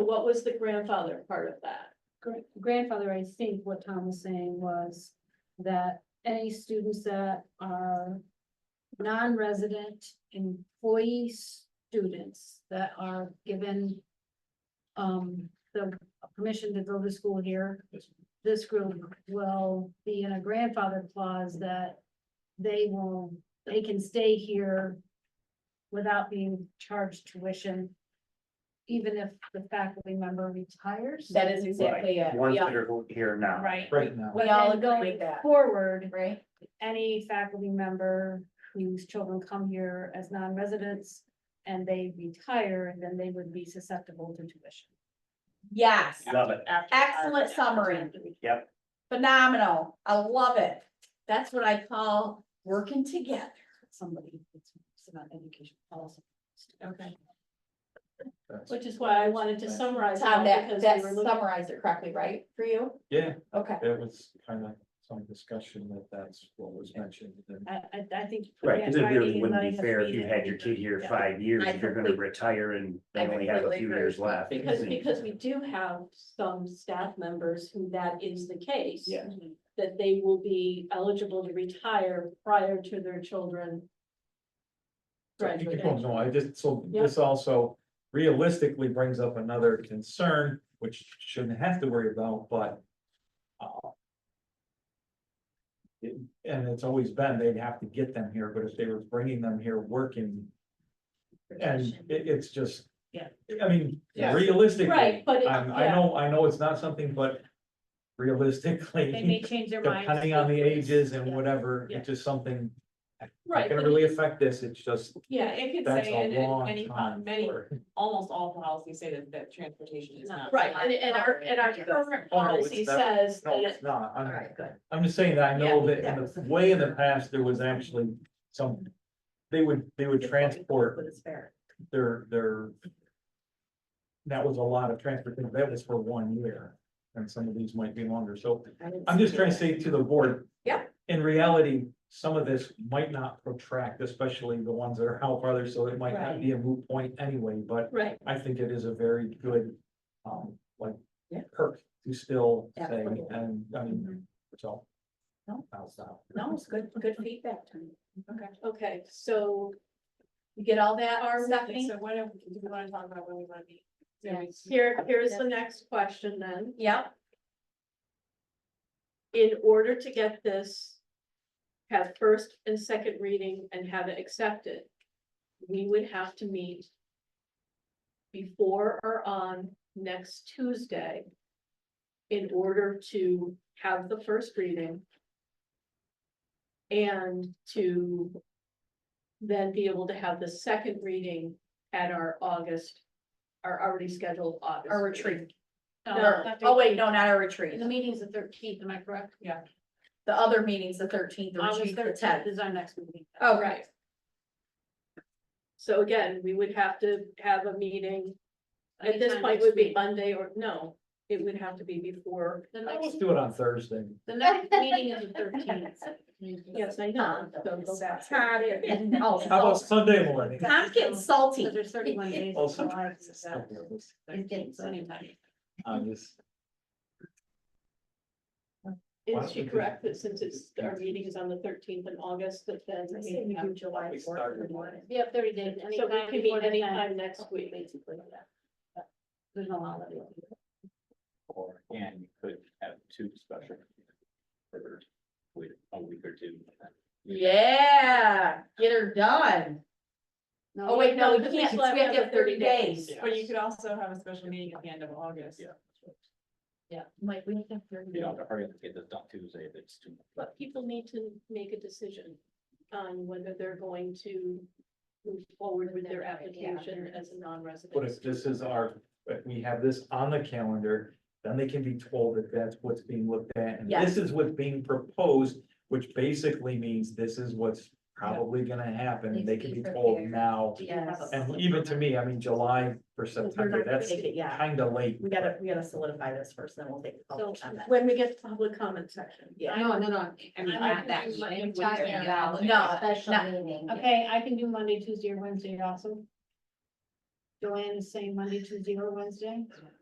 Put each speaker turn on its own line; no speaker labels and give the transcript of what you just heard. what was the grandfather part of that?
gra- grandfather, I think what Tom was saying was that any students that are non-resident employee students that are given um, the permission to go to school here, this group will be in a grandfather clause that they will, they can stay here without being charged tuition, even if the faculty member retires.
That is exactly it.
Ones
We all-
that are here now.
Right.
right now.
We all
And
agree with
going
that,
forward,
right?
any faculty member whose children come here as non-residents and they retire, then they would be susceptible to tuition.
Yes,
Love it.
After-
Excellent summary.
Yep.
phenomenal. I love it. That's what I call working together.
Somebody, it's it's about education policy.
Okay.
That's-
Which is why I wanted to summarize.
Tom,
that
that,
because
that
we were looking-
summarized it correctly, right, for you?
Yeah,
Okay,
it was kind of some discussion that that's what was mentioned. and
I, I, I think.
Right, because it
Friday
really wouldn't
night
be
has
fair if
been
you had your kid here
Yeah.
five years,
I
if you're gonna
complete-
retire and they
I
only have a
completely
few
agree.
years left.
Because,
And-
because we do have some staff members who that is the case.
Yeah.
That they will be eligible to retire prior to their children.
So you can-
graduating.
No, I just, so this also realistically brings up another concern, which shouldn't have to worry about, but. uh, it- And it's always been, they'd have to get them here, but if they were bringing them here working, and it, it's just.
Yeah.
I mean,
Yeah.
realistically.
Right, but it-
I'm- I
yeah.
know, I know it's not something, but realistically.
They may change their minds.
Depending on the ages and
Yeah.
whatever,
Yeah.
it's just something,
Right,
not gonna
but
really affect this, it's just,
Yeah, it could
that's
say, and,
a
and
long
many,
time.
many,
for-
almost all policies say that, that transportation is not.
right, and, and our, and our current
Oh, no, it's
policy
not-
says
No,
that,
it's not,
all
I'm,
right, good.
I'm just saying that I know
Yeah,
that in the way in the past, there was actually some, they would, they would transport
But it's fair.
their, their. That was a lot of transportation, that was for one year, and some of these might be longer, so I'm just trying to say to the board.
Yeah.
In reality, some of this might not protract, especially the ones that are out farther, so it might not be a moot point anyway, but
right,
I think it is a very good, um, like.
Yeah.
Perk to still say,
Absolutely. Mm-hmm.
and, I mean, so.
No.
I'll stop.
No, it's good, good feedback, Tony.
okay, so,
You get all that,
Our-
Stephanie?
So what do, do we wanna talk about when we wanna meet? Do we-
here, here's the next question then.
Yeah,
in order to get this. Have first and second reading and have it accepted. We would have to meet. Before or on next Tuesday. In order to have the first reading. And to. Then be able to have the second reading at our August, our already scheduled August.
our
meeting.
retreat.
No.
Dr.
Oh, wait, no, not our retreat.
The meeting's the thirteenth, am I correct? Yeah.
The other meeting's the thirteenth, the
August
retreat's the
thirteenth
tenth.
is our next meeting.
Oh,
Right. So again, we would have to have a meeting, at this
Anytime
point
next
would be
week.
Monday or, no, it would have to be before.
The
Let's
next,
do it on Thursday.
the next meeting is the thirteenth.
Yes, I know, so go back.
Oh,
How about Sunday morning?
I'm getting salty.
So there's thirty-one days. in
Also-
July, so that's
getting
13th, so anytime.
I'm just. Why
Is
don't
she
we do-
correct that since it's, our meeting is on the thirteenth in August, that then we have,
July
We started.
Yeah, thirty days.
so
anytime
we can meet
before the
anytime
tenth.
next week.
There's no holiday.
Or, and you could have two special. For, wait, a week or two.
Yeah, get her done.
No,
Oh, wait, no, we
because
can't,
still
because we have to have thirty days.
Yeah.
Or you could also have a special meeting at the end of August.
Yeah.
Like, we have to have thirty
You
days.
know, to hurry up and get this done Tuesday, if it's too.
But people need to make a decision on whether they're going to move forward with their application as a non-resident.
But if this is our, if we have this on the calendar, then they can be told that that's what's being looked at, and this is what's being proposed, which basically means this is what's probably gonna happen, and they can be told now.
Yes.
And even to me, I mean, July for
Because we're
September,
not gonna
that's
take it yet.
kinda late.
We gotta, we gotta solidify this first, then we'll take. a
So
public comment.
when we get to public comment section.
Oh, Yeah.
I know, no, no, I mean,
I'm
not that
confused by
meeting.
what you're talking
about. No, no.
meeting. Okay, I can do Monday, Tuesday, or Wednesday also. Joanne is saying Monday, Tuesday, or Wednesday,